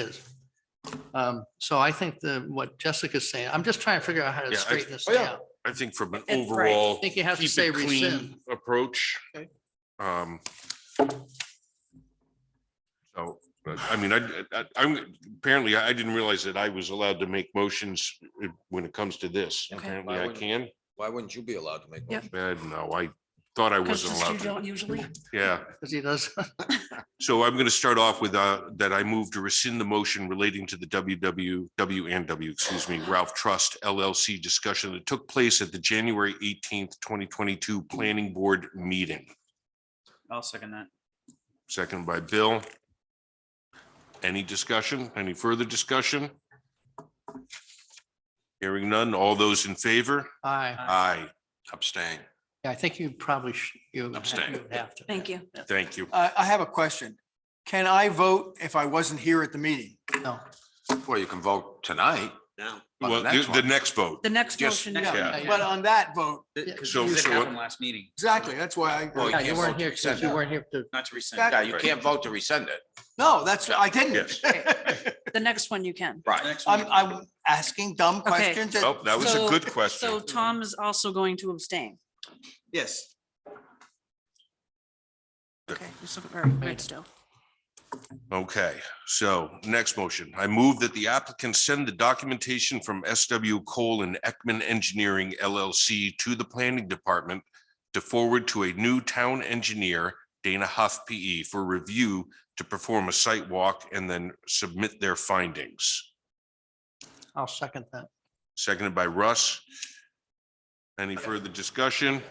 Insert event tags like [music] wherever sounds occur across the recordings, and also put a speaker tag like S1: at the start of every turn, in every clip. S1: is. Um, So I think the, what Jessica's saying, I'm just trying to figure out how to
S2: Yeah, I-
S1: straighten this
S2: oh, yeah.
S1: out.
S2: I think from an
S3: It- right.
S2: overall.
S1: I think you have to
S2: keep
S1: say
S2: it clean
S1: rescind.
S2: Approach.
S3: Okay.
S2: Um. So, but, I mean, I, I, I'm, apparently I didn't realize that I was allowed to make motions when it comes to this.
S4: Okay.
S2: Apparently I can,
S4: Why wouldn't you be allowed to make?
S3: Yeah.
S4: motions?
S2: Uh, no, I thought I wasn't
S3: Because you
S2: allowed. to.
S3: don't usually,
S2: Yeah,
S1: Because he does, [laughs]
S2: so I'm going to start off with, uh, that I move to rescind the motion relating to the WWW and W, excuse me, Ralph Trust LLC discussion that took place at the January eighteenth, twenty twenty-two Planning Board meeting.
S5: I'll second that.
S2: Second by Bill. Any discussion? Any further discussion? Hearing none. All those in favor?
S1: I,
S2: Aye. Abstain.
S1: I think you probably, sh- you you
S2: Abstain.
S1: would have to.
S3: thank you.
S2: Thank you.
S6: I, I have a question. Can I vote if I wasn't here at the meeting?
S2: Oh,
S1: No,
S4: Well, you can vote tonight.
S5: No.
S4: on
S2: Well,
S4: the
S2: the
S4: next
S2: the
S4: one.
S2: next vote.
S3: The next
S4: Just-
S3: motion,
S6: Yeah,
S2: Yeah.
S6: But on that vote,
S2: So-
S5: Because it
S2: so-
S5: happened last meeting.
S6: exactly, that's why
S4: Well,
S6: I,
S1: yeah, you
S4: can't
S1: weren't
S4: vote
S1: here,
S4: to
S1: because
S4: rescind
S1: you
S4: that.
S1: weren't here to,
S5: Not to rescind.
S6: Back-
S4: Yeah, you can't vote to rescind it.
S6: no, that's, I didn't.
S2: Yes.
S3: the next one you can.
S5: The next one
S6: [laughs] I'm,
S5: you can do.
S6: I'm asking dumb questions. that-
S2: Oh, that was a
S3: So-
S2: good question.
S3: So Tom is also going to abstain.
S6: Yes.
S3: Okay, so, all right, good still.
S2: Okay, so next motion. I move that the applicant send the documentation from SW Cole and Ekman Engineering LLC to the planning department to forward to a new town engineer, Dana Huff PE, for review to perform a site walk and then submit their findings.
S1: I'll second that.
S2: Seconded by Russ. Any further discussion?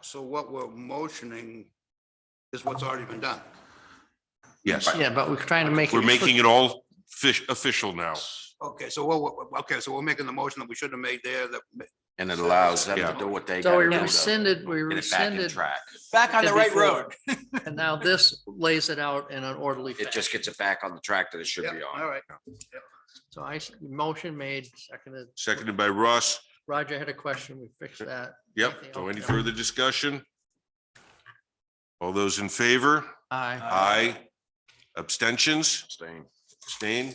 S7: So what we're motioning is what's already been done.
S2: Yes,
S1: Yeah, but we're trying to make.
S2: we're making it all fish, official now.
S7: Okay, so what- what, okay, so we're making the motion that we should have made there that.
S4: And it allows them
S2: Yeah.
S4: to do what they.
S1: So we
S4: gotta do to
S1: rescinded, we
S4: Get it back in
S1: rescinded,
S4: track.
S6: Back on the right
S1: Before.
S6: road.
S1: and now this lays it out in an orderly
S4: It
S1: fashion.
S4: just gets it back on the track that it should
S7: Yeah,
S4: be
S7: All
S4: on.
S7: right.
S1: So I, s- motion made, seconded.
S2: Seconded by Russ.
S1: Roger had a question, we fixed that.
S2: Yep,
S1: Anything
S2: so
S1: else?
S2: any
S1: No.
S2: further discussion? All those in favor?
S1: Aye.
S2: Aye. Abstentions?
S4: Abstain.
S2: Abstain?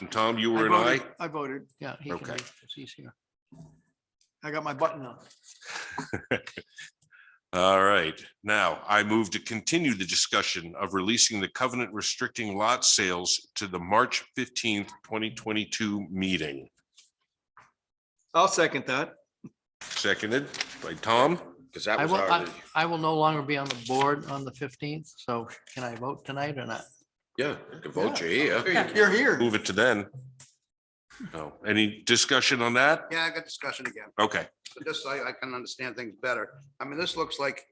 S2: And Tom, you were an
S6: voted-
S2: aye?
S6: I voted.
S1: yeah, he can
S2: Okay.
S1: read, 'cause he's here.
S6: I got my button on.
S2: All right, now I move to continue the discussion of releasing the covenant restricting lot sales to the March fifteenth, twenty twenty-two meeting.
S6: I'll second that.
S2: Seconded by Tom.
S4: Because that
S1: I
S4: was
S1: will, I
S4: already,
S1: I will no longer be on the board on the fifteenth, so can I vote tonight or not?
S4: yeah, you can vote you here.
S6: You're here.
S2: Move it to then. No, any discussion on that?
S7: Yeah, I got discussion again,
S2: Okay,
S7: but this, I, I can understand things better. I mean, this looks like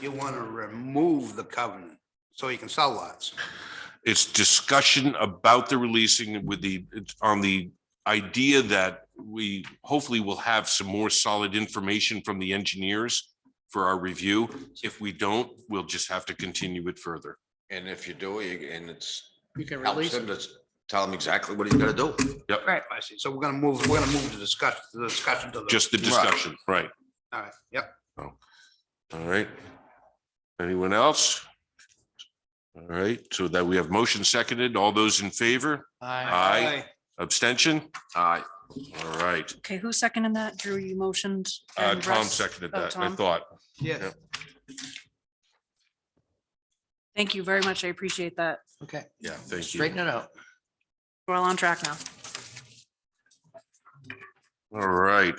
S7: you want to remove the covenant so you can sell lots.
S2: it's discussion about the releasing with the, it's on the idea that we hopefully will have some more solid information from the engineers for our review. If we don't, we'll just have to continue it further.
S4: And if you do, you- and it's
S1: You can
S4: helps
S1: release
S4: him
S1: it.
S4: to s- tell him exactly what he's gonna do.
S7: I see. So we're gonna move, we're gonna move the discussion, the discussion to the.
S2: Just the discussion, right?
S7: All right, yep.
S2: All right. Anyone else? All right, so that we have motion seconded. All those in favor?
S1: Aye.
S2: Aye. Abstention?
S4: Aye.
S2: All right.
S3: Okay, who seconded that? Drew, you motioned?
S2: Uh,
S3: and
S2: Tom
S3: Russ?
S2: seconded
S3: Oh,
S2: that, I
S3: Tom.
S2: thought.
S6: Yes.
S3: Thank you very much. I appreciate that.
S1: Okay,
S2: Yeah, thank you.
S1: straighten it out.
S3: We're all on track now.
S2: All right.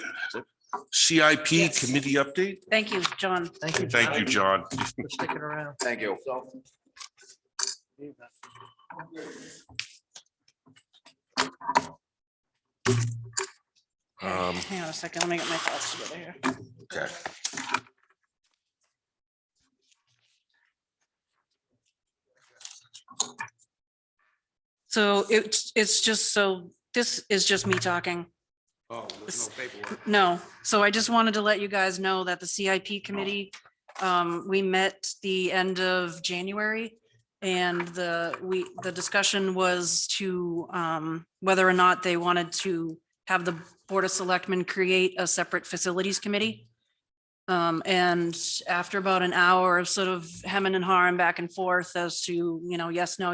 S2: CIP
S3: Yes.
S2: committee update?
S3: Thank you, John.
S1: Thank you.
S2: Thank you, John.
S1: For sticking around.
S4: Thank you.
S2: Um,
S3: Hang on a second, let me get my thoughts together here.
S2: Okay.
S3: So it's, it's just so, this is just me talking.
S7: Oh, there's no paperwork.
S3: No, so I just wanted to let you guys know that the CIP committee, um, we met the end of January. And the, we, the discussion was to, um, whether or not they wanted to have the Board of Selectmen create a separate facilities committee. Um, and after about an hour of sort of hemming and hawing back and forth as to, you know, yes, no,